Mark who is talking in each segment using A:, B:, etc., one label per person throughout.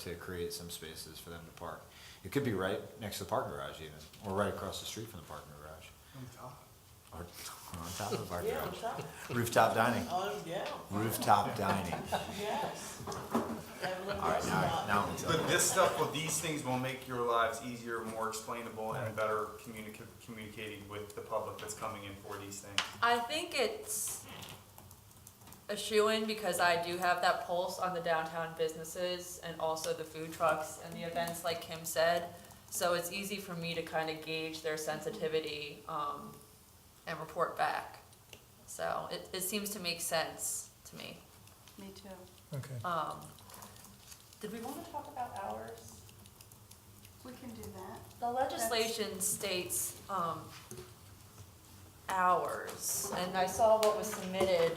A: to create some spaces for them to park. It could be right next to the parking garage even, or right across the street from the parking garage, or or on top of the parking
B: Yeah, on
A: garage.
B: top.
A: Rooftop dining,
B: Oh, yeah,
A: rooftop dining.
B: yes. That little
A: All right, now,
B: restaurant.
A: now I'm telling
C: But this stuff, well, these things will make your lives easier, more explainable, and better communica- communicating with the public that's coming in for these things.
D: I think it's a shoe-in because I do have that pulse on the downtown businesses and also the food trucks and the events, like Kim said. So it's easy for me to kind of gauge their sensitivity, um, and report back. So it, it seems to make sense to me.
E: Me too.
F: Okay.
D: Um, did we want to talk about hours?
E: We can do that.
D: The legislation states, um, hours, and I saw what was submitted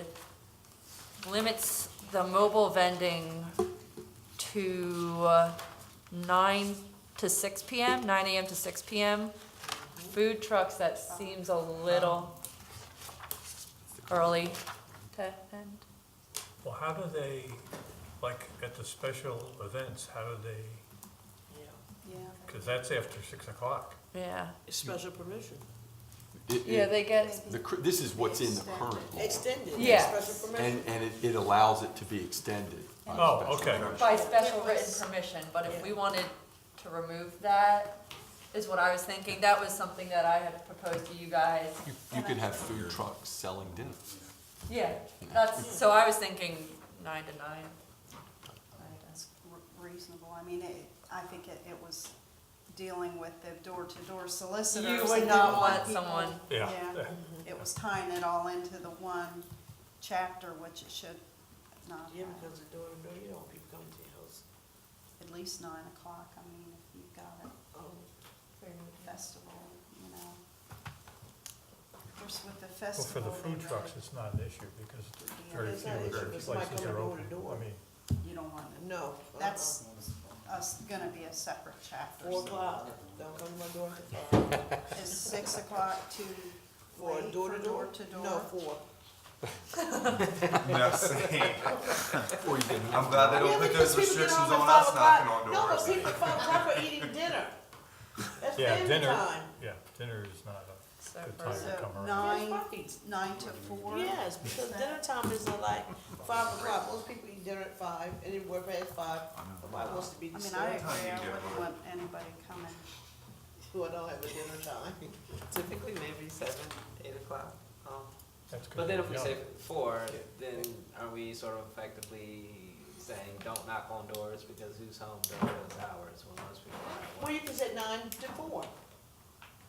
D: limits the mobile vending to uh, nine to six PM, nine AM to six PM. Food trucks, that seems a little early to end.
F: Well, how do they, like, at the special events, how do they,
B: Yeah.
E: Yeah.
F: because that's after six o'clock.
D: Yeah,
B: Special permission,
G: It-
D: yeah,
G: it-
D: they get,
G: the cr- This is what's in the
E: Extended.
G: current law,
B: extended,
D: Yes.
B: special
G: and,
B: permission.
G: and it- it allows it to be extended. by a
F: Oh,
G: special
F: okay.
G: permit.
D: By special written permission, but if we
B: Yeah.
D: wanted to remove that, is what I was thinking, that was something that I had proposed to you guys.
G: You- You could have food trucks selling dinner.
D: Yeah, that's, so I was thinking nine to nine. I guess.
E: re- reasonable. I mean, it, I think it, it was dealing with the door-to-door solicitors.
D: You would
E: and
D: not
E: didn't
D: want
E: people-
D: someone-
F: Yeah.
E: It was tying it all into the one chapter, which it should not
B: Yeah,
E: have,
B: because the door to door, you don't want people coming to your house.
E: at least nine o'clock. I mean, if you've got a
B: Oh,
E: festival, you know. Of course, with the
F: Well, for
E: festival.
F: the food
E: they
F: trucks,
E: really-
F: it's not an issue because very
B: Yeah, it's
F: few
B: not
F: of
B: an issue,
F: their
B: but somebody
F: places
B: coming
F: are
B: door
F: open.
B: to door.
F: I mean,
E: You don't want to,
B: No. uh-uh.
E: that's, us, gonna be a separate chapter.
B: Four o'clock, don't come to my door till five.
E: Is six o'clock too
B: For
E: late
B: door
E: for
B: to door?
E: door to door?
B: No, four.
C: No, same.
G: Or you can
C: I'm glad they
B: Yeah,
C: don't put those
B: because people get
C: restrictions
B: home
C: on
B: at
C: us knocking
B: five o'clock.
C: on
B: No,
C: doors.
B: but people at five o'clock are eating dinner. That's
F: Yeah,
B: family
F: dinner,
B: time.
F: yeah, dinner is not a,
D: So
F: Good
D: for-
F: time.
E: So
F: Come around.
B: Yes,
E: nine,
B: puppies.
E: nine to four?
B: Yes, because dinner time is not like five o'clock, most people eat dinner at five, and then work past five, nobody wants to be
E: I mean, I
B: disturbed,
E: agree, I
C: Yeah.
E: wouldn't want anybody coming.
B: who I don't have a dinner time.
H: Typically maybe seven, eight o'clock. Um,
F: that's good.
H: but then if we
F: Yeah.
H: say four, then are we sort of effectively saying don't knock on doors because who's home during those hours when most people are
B: Well,
H: at
B: you
H: work?
B: can say nine to four,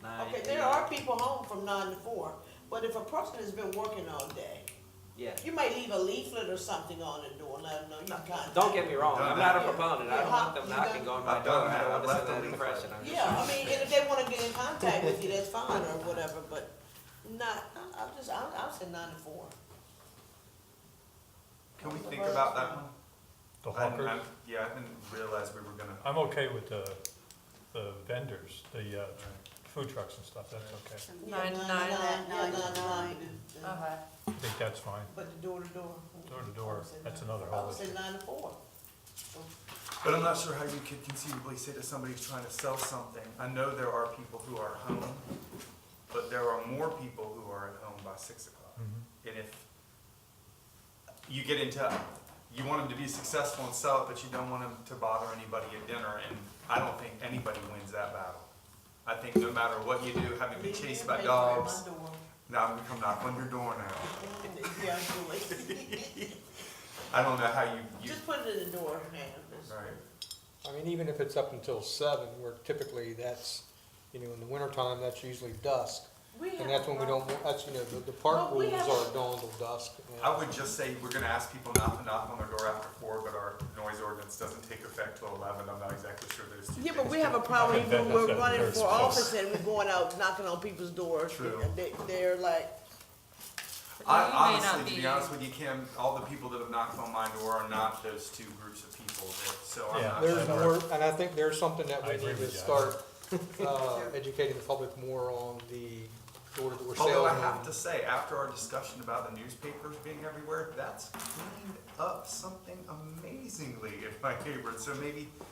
H: Nine,
B: okay, there
H: eight.
B: are people home from nine to four, but if a person has been working all day,
H: Yeah.
B: you might leave a leaflet or something on the door, let them know you can't.
H: Don't get me wrong.
C: Done
H: I'm not a
B: that.
H: proponent. I don't want them
B: Yeah.
H: knocking on my
C: I've done
H: door. I
C: that.
H: don't want
C: I've
H: to send
C: left
H: that
C: them
H: impression. I'm just
B: Yeah, I
H: trying to-
B: mean, and if they wanna get in contact with you, that's fine or whatever, but not, I- I'm just, I'll, I'll say nine to four.
C: Can we think about that one?
F: The
C: I didn't-
F: hawkers,
C: I- Yeah, I didn't realize we were gonna.
F: I'm okay with the, the vendors, the, uh, food trucks and stuff, that's okay.
B: Yeah,
D: Nine to nine.
B: yeah,
E: Nine to
B: nine Uh-huh. to
E: nine.
B: nine. Yeah.
D: Okay,
F: I think that's fine.
B: But the door to door.
F: Door to door,
B: I would say
F: that's
B: nine-
F: another
B: I
F: whole
B: would say
F: issue.
B: nine to four.
C: But I'm not sure how you could conceivably say to somebody who's trying to sell something, I know there are people who are home, but there are more people who are at home by six o'clock.
F: Mhm.
C: And if you get into, you want them to be successful and sell it, but you don't want them to bother anybody at dinner, and I don't think anybody wins that battle. I think no matter what you do, having been chased by dogs, now I'm gonna come knock on your door now.
B: Oh, Yeah, do it.
C: I don't know how you, you,
B: Just put it in the door, man.
C: right?
I: I mean, even if it's up until seven, where typically that's, you know, in the wintertime, that's usually dusk.
B: We have
I: And that's when we
B: a
I: don't,
B: problem.
I: that's, you know, the, the park
B: Well, we
I: rules
B: have-
I: are dawn till dusk. and-
C: I would just say, we're gonna ask people not to knock on their door after four, but our noise ordinance doesn't take effect till eleven, I'm not exactly sure those two
B: Yeah, but
C: things
B: we have a
C: do.
B: problem
F: That-
B: even when we're
F: that's
B: running
F: very
B: for office and we're going out knocking on people's doors.
C: True.
B: They, they're like,
C: I,
D: You may not
C: honestly, to be
D: be-
C: honest with you, Kim, all the people that have knocked on my door are not those two groups of people, that- so I'm
F: Yeah.
C: not.
I: There's
C: sure.
I: more, and I think there's something that
F: I
I: we
F: agree
I: need to
F: with you.
I: start, uh, educating the public more on the door-to-door sales.
C: Although I
I: and-
C: have to say, after our discussion about the newspapers being everywhere, that's cleaned up something amazingly in my neighborhood, so maybe